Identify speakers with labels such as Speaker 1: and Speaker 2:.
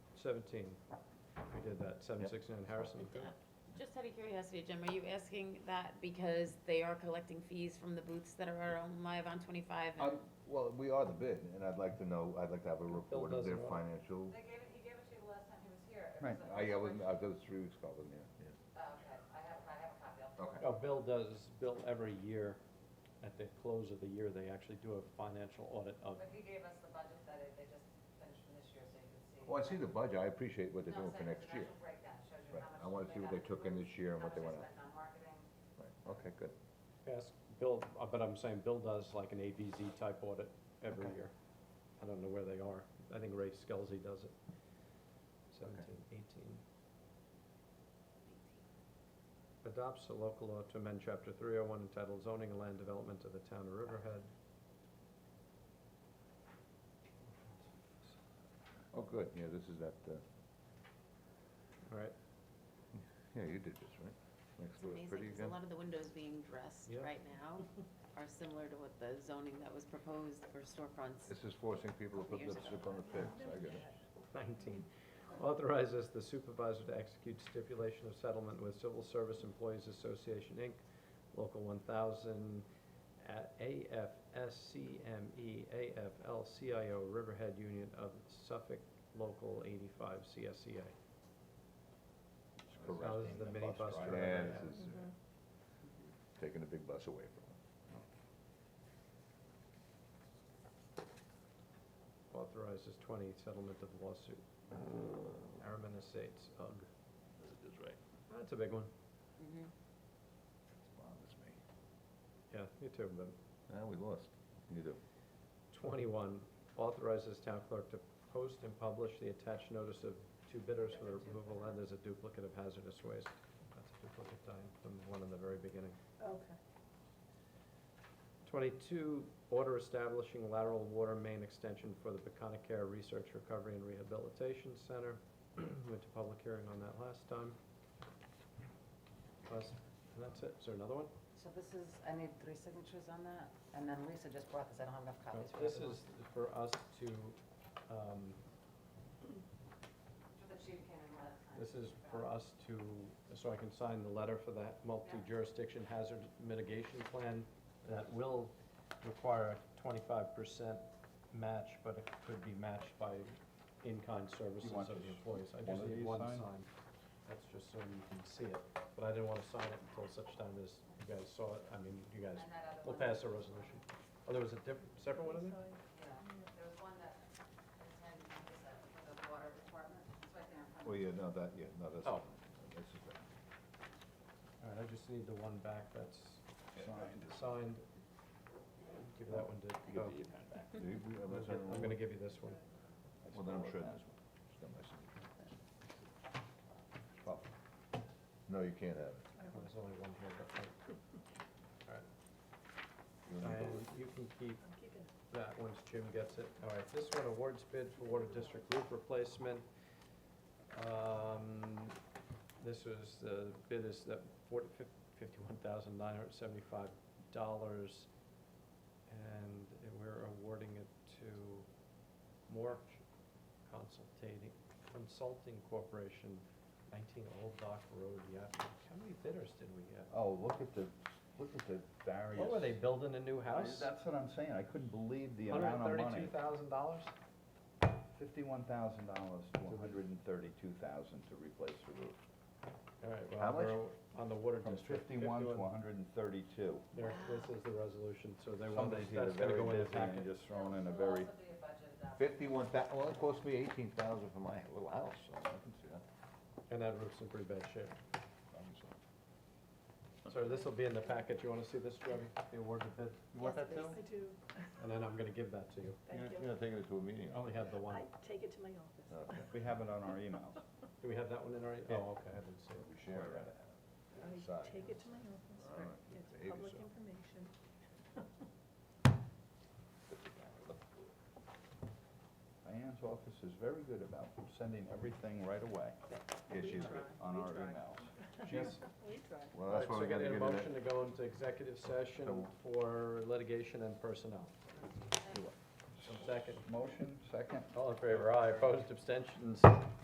Speaker 1: seventeen, we did that, seven sixty-nine Harrison.
Speaker 2: Just out of curiosity, Jim, are you asking that because they are collecting fees from the booths that are on live on twenty-five? and-
Speaker 3: Um, Well, we are the bid, and I'd like to know, I'd like to have a report of their
Speaker 1: doesn't want
Speaker 3: financial.
Speaker 4: They gave it, he gave it to you the last time he was here. It
Speaker 5: Right.
Speaker 4: was a-
Speaker 3: I, I was, I was three weeks ago, I wasn't here,
Speaker 4: Oh, Okay, I have, I have a copy,
Speaker 1: Oh,
Speaker 3: Okay.
Speaker 4: I'll.
Speaker 1: Bill does, Bill every year, at the close of the year, they actually do a financial audit of,
Speaker 4: But he gave us the budget that it- they just finished for this year, so you can see.
Speaker 3: Well, Oh, I see the budget, I appreciate what they're
Speaker 4: No,
Speaker 3: doing
Speaker 4: I'm
Speaker 3: for
Speaker 4: saying it's
Speaker 3: next
Speaker 4: an
Speaker 3: year.
Speaker 4: actual breakdown, shows you
Speaker 3: Right,
Speaker 4: how
Speaker 3: I wanna
Speaker 4: much they
Speaker 3: see what
Speaker 4: got
Speaker 3: they took in
Speaker 4: approved,
Speaker 3: this year and
Speaker 4: how
Speaker 3: what they
Speaker 4: much
Speaker 3: went out.
Speaker 4: spent on
Speaker 3: Right,
Speaker 4: marketing.
Speaker 3: okay, good.
Speaker 1: ask Bill, uh, but I'm saying Bill does like an ABZ type audit every
Speaker 3: Okay.
Speaker 1: year. I don't know where they are, I think Ray Skelzy does it. Seventeen, eighteen. Adopts a local law to amend chapter three oh one entitled zoning and land development of the town of Riverhead.
Speaker 3: Oh, good, yeah, this is that, uh,
Speaker 1: All right,
Speaker 3: yeah, you did this, right? Next
Speaker 2: It's
Speaker 3: door is
Speaker 2: amazing,
Speaker 3: pretty
Speaker 2: because a
Speaker 3: again?
Speaker 2: lot of the windows being dressed
Speaker 1: Yeah.
Speaker 2: right now are similar to what the zoning that was proposed for storefronts.
Speaker 3: This is forcing people to put
Speaker 2: Years
Speaker 3: lipstick on the pigs, I get it.
Speaker 1: 19, authorizes the supervisor to execute stipulation of settlement with Civil Service Employees Association, Inc., Local 1000, at AFSCME, AFL-CIO, Riverhead Union of Suffolk, Local 85, CSCA.
Speaker 3: It's
Speaker 1: Now,
Speaker 3: correct.
Speaker 1: this is the mini bus driver.
Speaker 3: Yeah,
Speaker 1: yeah.
Speaker 3: this is uh,
Speaker 2: Mm-hmm.
Speaker 3: taking the big bus away from them.
Speaker 1: Authorizes 20, settlement of lawsuit. Aramin Estates, UGG.
Speaker 3: This is right.
Speaker 1: That's a big one.
Speaker 2: Mhm.
Speaker 3: This bothers me.
Speaker 1: Yeah, you too, but
Speaker 3: Ah, we lost. You do.
Speaker 1: 21, authorizes town clerk to post and publish the attached notice of two bidders for the removal and as a duplicate of hazardous waste. That's a duplicate time from the one in the very beginning.
Speaker 6: Okay.
Speaker 1: 22, order establishing lateral water main extension for the Peconic Research Recovery and Rehabilitation Center. Went to public hearing on that last time. Last- And that's it. Is there another one?
Speaker 6: So this is, I need three signatures on that, and then Lisa just brought this, I don't have enough copies for
Speaker 1: Uh, This
Speaker 6: everyone.
Speaker 1: is for us to, um,
Speaker 4: The chief came in last time.
Speaker 1: This is for us to, so I can sign the letter for that multi-jurisdiction hazard mitigation plan that will require a twenty-five percent match, but it could be matched by in-kind services
Speaker 5: want
Speaker 1: of the
Speaker 5: just
Speaker 1: employees. I
Speaker 5: one
Speaker 1: just
Speaker 5: of
Speaker 1: need
Speaker 5: these
Speaker 1: one
Speaker 5: signed?
Speaker 1: sign. That's just so you can see it, but I didn't want to sign it until such time as you guys saw it. I mean, you guys,
Speaker 4: And that other
Speaker 1: we'll
Speaker 4: one.
Speaker 1: pass a resolution. Oh, there was a different, separate one in there?
Speaker 4: Yeah, there was one that intended to use that for the water department, it's right there in front of
Speaker 3: Well, yeah, no, that, yeah, no, that's.
Speaker 1: Oh.
Speaker 3: This is right.
Speaker 1: All right, I just need the one back that's
Speaker 5: Signed.
Speaker 1: signed. Give that one to, oh,
Speaker 3: Do you- we- I'm not
Speaker 1: I'm
Speaker 3: certain-
Speaker 1: gonna give you this one.
Speaker 3: Well, then I'm sure this one. It's got my signature. Oh. No, you can't have it.
Speaker 1: There's only one here, but,
Speaker 3: You and I both.
Speaker 1: and you can keep that once Jim gets it. All right, this one, awards bid for water district roof replacement. Um, this was, the bid is that forty, fifty-one thousand nine hundred seventy-five dollars. And we're awarding it to Moore Consulting, Consulting Corporation, nineteen Old Dock Road, Yaphank. How many bidders did we get?
Speaker 5: Oh, look at the, look at the
Speaker 3: Oh,
Speaker 5: various.
Speaker 1: What were they, building a new house?
Speaker 5: That's what I'm saying, I couldn't believe the
Speaker 1: Hundred
Speaker 5: amount
Speaker 1: and
Speaker 5: of money.
Speaker 1: thirty-two thousand dollars?
Speaker 5: Fifty-one thousand dollars to hundred and thirty-two thousand to replace the roof.
Speaker 1: All right,
Speaker 5: How much?
Speaker 1: well, we're on the water
Speaker 5: From
Speaker 1: district.
Speaker 5: fifty-one to hundred and thirty-two.
Speaker 1: There, this is the resolution, so they want,
Speaker 5: Somebody's either
Speaker 1: that's
Speaker 5: very
Speaker 1: gonna go in the
Speaker 5: busy and
Speaker 1: packet.
Speaker 5: just thrown in a
Speaker 4: It'll
Speaker 5: very,
Speaker 4: also be a budget adoption.
Speaker 3: Fifty-one thou, well, it cost me eighteen thousand for my little house, so I can see that.
Speaker 1: And that roof's in pretty bad shape.
Speaker 3: Obviously.
Speaker 1: So this will be in the packet. You wanna see this, Jeremy? The award of bid?
Speaker 5: you want that too?
Speaker 7: I do,
Speaker 1: And then I'm gonna give that to you.
Speaker 7: thank
Speaker 3: You're-
Speaker 7: you.
Speaker 3: You're not taking it to a meeting? Oh.
Speaker 1: I only have the one.
Speaker 7: I take it to my office.
Speaker 3: Okay.
Speaker 5: we have it on our emails.
Speaker 1: Do we have that one in already?
Speaker 5: Yeah.
Speaker 1: Oh, okay, I didn't see it.
Speaker 3: We share it.
Speaker 7: I
Speaker 3: Sorry.
Speaker 7: take it to my office.
Speaker 3: All right.
Speaker 7: It's
Speaker 3: Behave
Speaker 7: public
Speaker 3: yourself.
Speaker 7: information.
Speaker 5: Diane's office is very good about sending everything right away.
Speaker 3: Yeah, she's right.
Speaker 5: On
Speaker 7: We
Speaker 5: our
Speaker 7: try.
Speaker 5: emails.
Speaker 1: Yes.
Speaker 7: We try.
Speaker 3: Well, that's why
Speaker 1: So
Speaker 3: we gotta
Speaker 1: getting a
Speaker 3: get it.
Speaker 1: motion to go into executive session
Speaker 3: So-
Speaker 1: for litigation and personnel. Second.
Speaker 5: Motion, second?
Speaker 1: All in favor, aye. Opposed, abstentions,